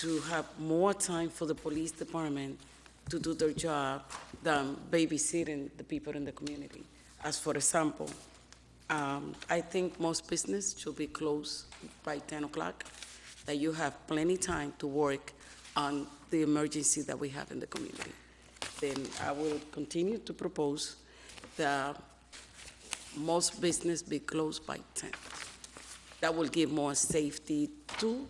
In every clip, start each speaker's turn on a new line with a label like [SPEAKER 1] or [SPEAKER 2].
[SPEAKER 1] to have more time for the police department to do their job than babysitting the people in the community. As for example, um, I think most business should be closed by 10 o'clock, that you have plenty time to work on the emergency that we have in the community. Then I will continue to propose that most business be closed by 10. That will give more safety to,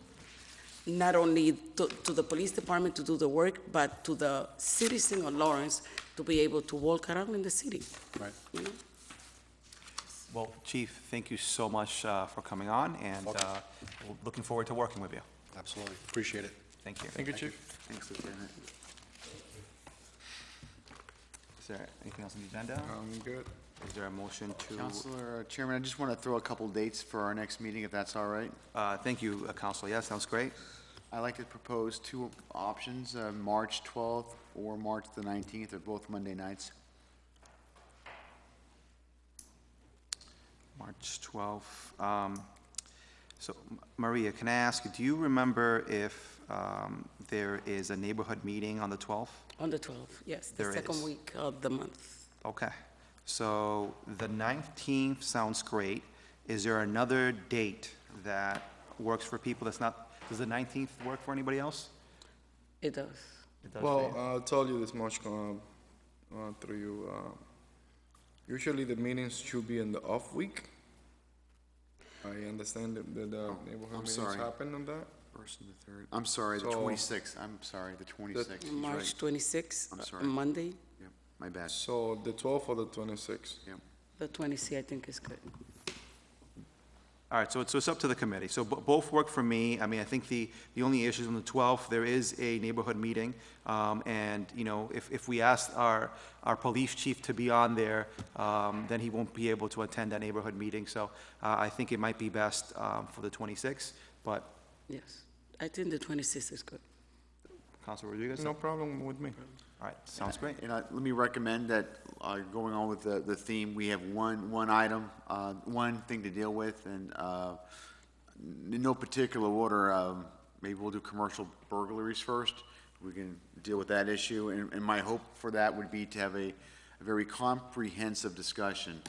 [SPEAKER 1] not only to, to the police department to do the work, but to the citizen of Lawrence to be able to walk around in the city.
[SPEAKER 2] Right.
[SPEAKER 1] you know?
[SPEAKER 3] Well, Chief, thank you so much uh, for coming on, and
[SPEAKER 2] Welcome.
[SPEAKER 3] uh, we're looking forward to working with you.
[SPEAKER 2] Absolutely. Appreciate it.
[SPEAKER 3] Thank you.
[SPEAKER 4] Thank you, Chief.
[SPEAKER 3] Thanks, Lieutenant. Is there anything else on the agenda?
[SPEAKER 2] I'm good.
[SPEAKER 3] Is there a motion to,
[SPEAKER 5] Counselor uh, Chairman, I just want to throw a couple dates for our next meeting, if that's all right.
[SPEAKER 3] uh, thank you, uh, Counselor, yes, sounds great.
[SPEAKER 5] I'd like to propose two options, uh, March 12th or March the 19th, they're both Monday nights.
[SPEAKER 3] March 12th. Um, So, M- Maria, can I ask, do you remember if um, there is a neighborhood meeting on the 12th?
[SPEAKER 1] On the 12th, yes, the
[SPEAKER 3] There
[SPEAKER 1] second
[SPEAKER 3] is.
[SPEAKER 1] week of the month.
[SPEAKER 3] Okay, so the 19th sounds great. Is there another date that works for people that's not, does the 19th work for anybody else?
[SPEAKER 1] It does.
[SPEAKER 3] It does for
[SPEAKER 4] Well,
[SPEAKER 3] you.
[SPEAKER 4] I'll tell you this much, um, uh, through you, uh, usually the meetings should be in the off week. I understand that, that,
[SPEAKER 3] Oh,
[SPEAKER 4] uh, neighborhood
[SPEAKER 5] I'm
[SPEAKER 4] meetings
[SPEAKER 5] sorry.
[SPEAKER 4] happen on that.
[SPEAKER 5] First and the third. I'm sorry, the
[SPEAKER 4] So-
[SPEAKER 5] 26th, I'm sorry, the 26th. He's right.
[SPEAKER 1] March 26th,
[SPEAKER 5] I'm
[SPEAKER 1] uh,
[SPEAKER 5] sorry.
[SPEAKER 1] Monday,
[SPEAKER 5] Yep, My bad,
[SPEAKER 4] So the twelfth or the twenty-sixth.
[SPEAKER 5] yep.
[SPEAKER 1] the 26th, I think is good.
[SPEAKER 3] All right, so it's, so it's up to the committee. So bo- both work for me. I mean, I think the, the only issue is on the 12th, there is a neighborhood meeting. Um, And, you know, if, if we ask our, our police chief to be on there, um, then he won't be able to attend that neighborhood meeting. So uh, I think it might be best um, for the 26th, but
[SPEAKER 1] Yes, I think the 26th is good.
[SPEAKER 3] Council Rodriguez?
[SPEAKER 4] No problem with me.
[SPEAKER 3] All right, sounds great.
[SPEAKER 5] And I- let me recommend that, uh, going on with the, the theme, we have one, one item, uh, one thing to deal with, and uh, in no particular order, um, maybe we'll do commercial burglaries first. We can deal with that issue, and, and my hope for that would be to have a, a very comprehensive discussion.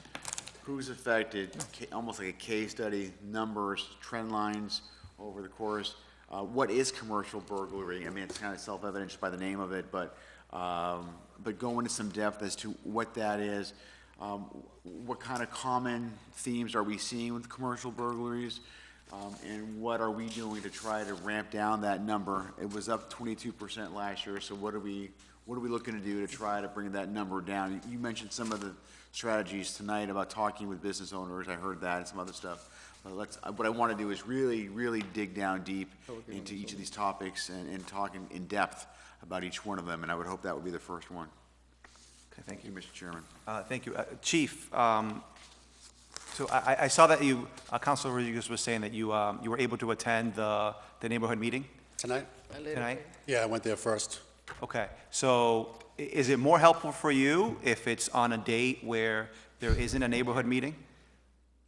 [SPEAKER 5] Who's affected, ca- almost like a case study, numbers, trend lines over the course. Uh, what is commercial burglary? I mean, it's kind of self-evident just by the name of it, but, um, but go into some depth as to what that is. Um, wh- what kind of common themes are we seeing with commercial burglaries? Um, and what are we doing to try to ramp down that number? It was up twenty-two percent last year, so what are we, what are we looking to do to try to bring that number down? You mentioned some of the strategies tonight about talking with business owners, I heard that, and some other stuff. But let's, uh, what I wanna do is really, really dig down deep into each of these topics and, and talk in, in depth about each one of them, and I would hope that would be the first one.
[SPEAKER 3] Okay, thank
[SPEAKER 5] Thank you, Mr. Chairman.
[SPEAKER 3] Uh, Thank you. Uh, Chief, um, so I I- I saw that you, uh, Councilor Rodriguez was saying that you um, you were able to attend the the neighborhood meeting
[SPEAKER 6] Tonight?
[SPEAKER 3] tonight?
[SPEAKER 6] Yeah, I went there first.
[SPEAKER 3] Okay, so i- is it more helpful for you if it's on a date where there isn't a neighborhood meeting?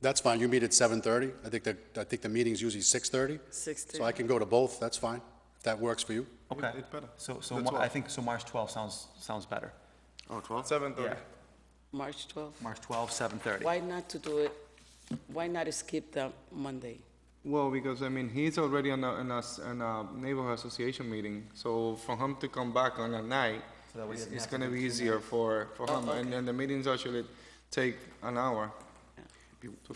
[SPEAKER 6] That's fine, you meet at 7:30? I think that, I think the meeting's usually 6:30?
[SPEAKER 1] 6:30.
[SPEAKER 6] So I can go to both, that's fine, if that works for you.
[SPEAKER 3] Okay.
[SPEAKER 4] it's better.
[SPEAKER 3] So, so
[SPEAKER 4] The
[SPEAKER 3] Mar- I
[SPEAKER 4] 12th.
[SPEAKER 3] think, so March 12 sounds, sounds better.
[SPEAKER 5] Oh, twelve?
[SPEAKER 4] Seven thirty.
[SPEAKER 1] March 12th.
[SPEAKER 3] March 12, 7:30.
[SPEAKER 1] Why not to do it, why not skip the Monday?
[SPEAKER 4] Well, because I mean, he's already on a, in a, s- in a neighborhood association meeting, so for him to come back on a night,
[SPEAKER 3] So that way he
[SPEAKER 4] it's,
[SPEAKER 3] doesn't
[SPEAKER 4] it's
[SPEAKER 3] have to
[SPEAKER 4] gonna
[SPEAKER 3] do
[SPEAKER 4] be
[SPEAKER 3] two
[SPEAKER 4] easier for, for him, and, and the meetings actually take an hour.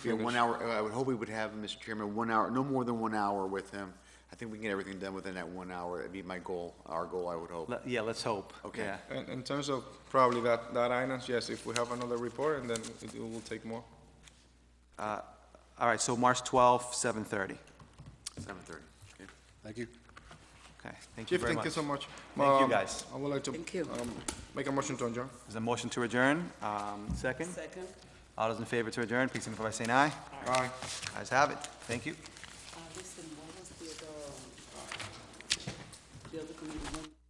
[SPEAKER 5] Be a one hour, uh, I would hope we would have, Mr. Chairman, one hour, no more than one hour with him. I think we can get everything done within that one hour. That'd be my goal, our goal, I would hope.
[SPEAKER 3] Le- Yeah, let's hope.
[SPEAKER 5] Okay.
[SPEAKER 3] Yeah.
[SPEAKER 4] In, in terms of probably that, that item, yes, if we have another report, and then it it will take more.
[SPEAKER 3] All right, so March 12, 7:30.
[SPEAKER 5] Seven thirty. Okay.
[SPEAKER 6] Thank you.
[SPEAKER 3] Okay, thank you
[SPEAKER 4] Chief,
[SPEAKER 3] very
[SPEAKER 4] thank
[SPEAKER 3] much.
[SPEAKER 4] you so much.
[SPEAKER 3] Thank you,
[SPEAKER 4] Um,
[SPEAKER 3] guys.
[SPEAKER 4] I would like to.
[SPEAKER 1] Thank you.
[SPEAKER 4] um, Make a motion to adjourn.
[SPEAKER 3] Is there a motion to adjourn? Um, Second?
[SPEAKER 1] Second?
[SPEAKER 3] All those in favor to adjourn, please signify by saying aye.
[SPEAKER 4] Aye.
[SPEAKER 3] Ayes have it. Thank you.
[SPEAKER 1] uh, Listen, what was um, the other, the other committee?